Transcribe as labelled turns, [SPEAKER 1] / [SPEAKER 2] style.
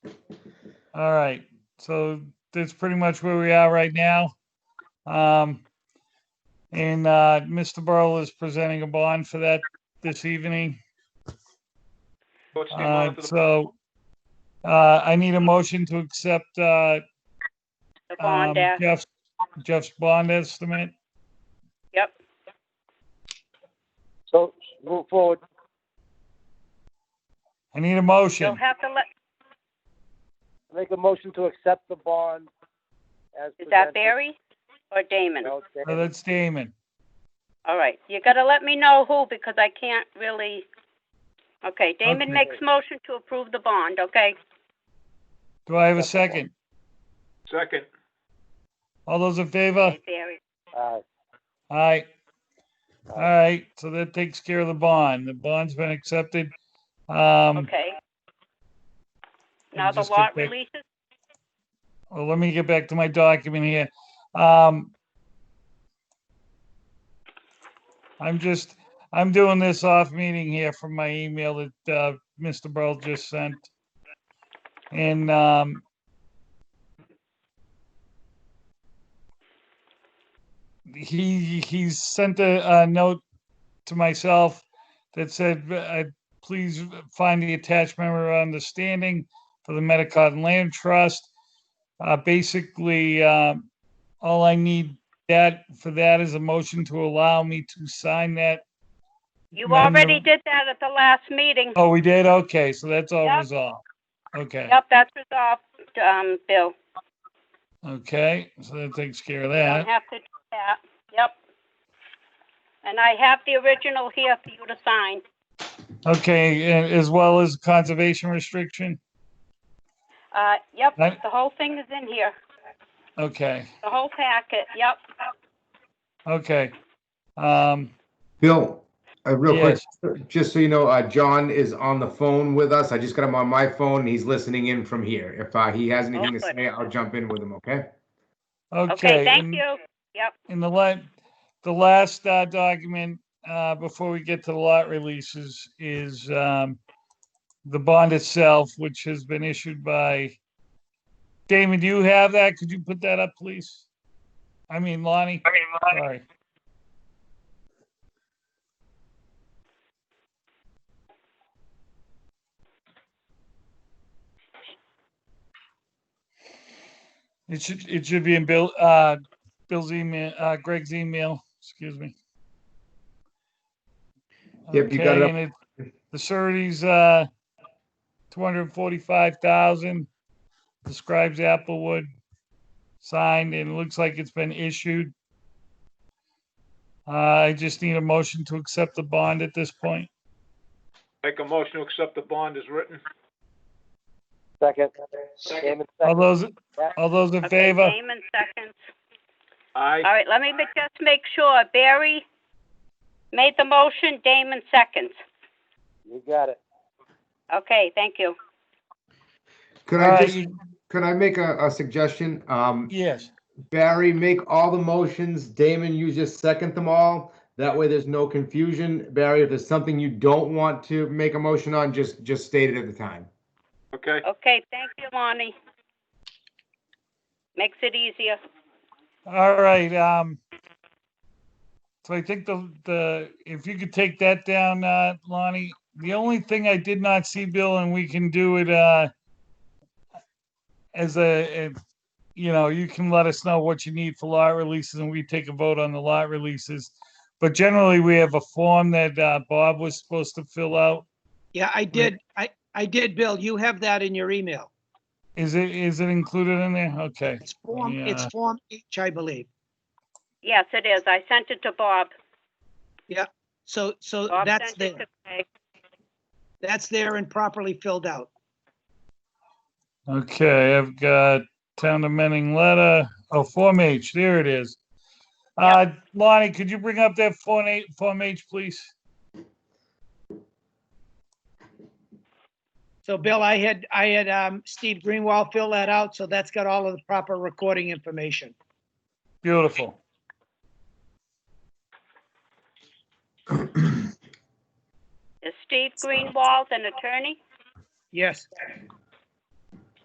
[SPEAKER 1] All right, so that's pretty much where we are right now. Um, and, uh, Mr. Burl is presenting a bond for that this evening.
[SPEAKER 2] What's the
[SPEAKER 1] Uh,
[SPEAKER 2] amount of the-
[SPEAKER 1] so, uh, I need a motion to accept, uh,
[SPEAKER 3] The
[SPEAKER 1] um,
[SPEAKER 3] bond act,
[SPEAKER 1] Jeff's, Jeff's bond estimate.
[SPEAKER 3] yep.
[SPEAKER 4] So move forward.
[SPEAKER 1] I need a
[SPEAKER 3] You'll
[SPEAKER 1] motion.
[SPEAKER 3] have to let,
[SPEAKER 4] Make a motion to accept the bond as
[SPEAKER 3] is that
[SPEAKER 4] presented.
[SPEAKER 3] Barry or Damon?
[SPEAKER 4] No, it's
[SPEAKER 1] Uh,
[SPEAKER 4] Barry.
[SPEAKER 1] That's Damon.
[SPEAKER 3] All right, you gotta let me know who, because I can't really, okay,
[SPEAKER 1] Okay.
[SPEAKER 3] Damon makes motion to approve the bond, okay?
[SPEAKER 1] Do I have a second?
[SPEAKER 2] Second,
[SPEAKER 1] All those in favor?
[SPEAKER 3] Hey, Barry,
[SPEAKER 4] Aye.
[SPEAKER 1] Aye. All right, so that takes care of the bond. The bond's been accepted. Um,
[SPEAKER 3] okay.
[SPEAKER 1] Let me
[SPEAKER 3] Now the
[SPEAKER 1] just get
[SPEAKER 3] lot
[SPEAKER 1] back-
[SPEAKER 3] releases,
[SPEAKER 1] well, let me get back to my document here. Um, I'm just, I'm doing this off meeting here from my email that, uh, Mr. Burl just sent. And, um, he, he sent a, a note to myself that said, uh, please find the attached memorandum of understanding for the Metacotton Land Trust. Uh, basically, um, all I need that, for that is a motion to allow me to sign that.
[SPEAKER 3] you
[SPEAKER 1] Madam
[SPEAKER 3] already
[SPEAKER 1] Rep-
[SPEAKER 3] did that at the last meeting.
[SPEAKER 1] Oh, we did? Okay, so that's all
[SPEAKER 3] Yep.
[SPEAKER 1] resolved. Okay,
[SPEAKER 3] Yep, that's resolved, um, Bill.
[SPEAKER 1] okay, so that takes care of
[SPEAKER 3] You Don't
[SPEAKER 1] that.
[SPEAKER 3] have to do that, yep. And I have the original here for you to sign.
[SPEAKER 1] Okay, a- as well as conservation restriction?
[SPEAKER 3] Uh, yep,
[SPEAKER 1] Right.
[SPEAKER 3] the whole thing is in here,
[SPEAKER 1] Okay,
[SPEAKER 3] the whole packet, yep.
[SPEAKER 1] okay. Um,
[SPEAKER 5] Bill, uh, real
[SPEAKER 1] yes,
[SPEAKER 5] quick, just so you know, uh, John is on the phone with us. I just got him on my phone. and He's listening in from here. If uh, he has anything to
[SPEAKER 3] good.
[SPEAKER 5] say, I'll jump in with him. Okay.
[SPEAKER 3] Okay,
[SPEAKER 1] okay.
[SPEAKER 3] thank
[SPEAKER 1] and-
[SPEAKER 3] you. Yep,
[SPEAKER 1] And the la, the last, uh, document, uh, before we get to the lot releases is, um, the bond itself, which has been issued by, Damon, do you have that? Could you put that up, please? I mean Lonnie, sorry. It should, it should be in Bill, uh, Bill's email, uh, Greg's email, excuse me.
[SPEAKER 5] Yep, you got it
[SPEAKER 1] Okay, and it- The surety's, uh, two hundred and forty-five thousand, describes Applewood, signed, and it looks like it's been issued. Uh, I just need a motion to accept the bond at this point.
[SPEAKER 2] make a motion to accept the bond as written.
[SPEAKER 4] Second. Damon,
[SPEAKER 1] All
[SPEAKER 4] second.
[SPEAKER 1] those, all those in
[SPEAKER 3] okay,
[SPEAKER 1] favor?
[SPEAKER 3] Damon seconds. All
[SPEAKER 2] Aye,
[SPEAKER 3] right, let me ma- just make sure, Barry made the motion, Damon seconds.
[SPEAKER 4] You got it.
[SPEAKER 3] Okay, thank you.
[SPEAKER 5] Could
[SPEAKER 1] All
[SPEAKER 5] I
[SPEAKER 1] right,
[SPEAKER 5] just,
[SPEAKER 1] Uh, you-
[SPEAKER 5] could I make a, a suggestion? Um,
[SPEAKER 1] Yes,
[SPEAKER 5] Barry, make all the motions. Damon, you just second them all. That way there's no confusion. Barry, if there's something you don't want to make a motion on, just, just state it at the time.
[SPEAKER 2] okay,
[SPEAKER 3] Okay, thank you, Lonnie. Makes it easier.
[SPEAKER 1] all right, um, so I think the, the, if you could take that down, uh, Lonnie, the only thing I did not see, Bill, and we can do it, uh, as a, if, you know, you can let us know what you need for lot releases and we take a vote on the lot releases. But generally, we have a form that, uh, Bob was supposed to fill out.
[SPEAKER 6] Yeah, I did. I, I did, Bill. You have that in your email.
[SPEAKER 1] Is it, is it included in there? Okay.
[SPEAKER 6] It's Form, it's
[SPEAKER 1] Yeah.
[SPEAKER 6] Form H, I believe.
[SPEAKER 3] Yes, it is. I sent it to Bob.
[SPEAKER 6] So, so
[SPEAKER 3] Bob
[SPEAKER 6] that's
[SPEAKER 3] sent it
[SPEAKER 6] there.
[SPEAKER 3] to Greg.
[SPEAKER 6] That's there and properly filled out.
[SPEAKER 1] Okay, I've got town amending letter, oh, Form H, there it is. Uh, Lonnie, could you bring up that Form H, Form H, please?
[SPEAKER 6] So Bill, I had, I had, um, Steve Greenwald fill that out. So that's got all of the proper recording information.
[SPEAKER 1] Beautiful.
[SPEAKER 3] Is Steve Greenwald an attorney?
[SPEAKER 6] Yes.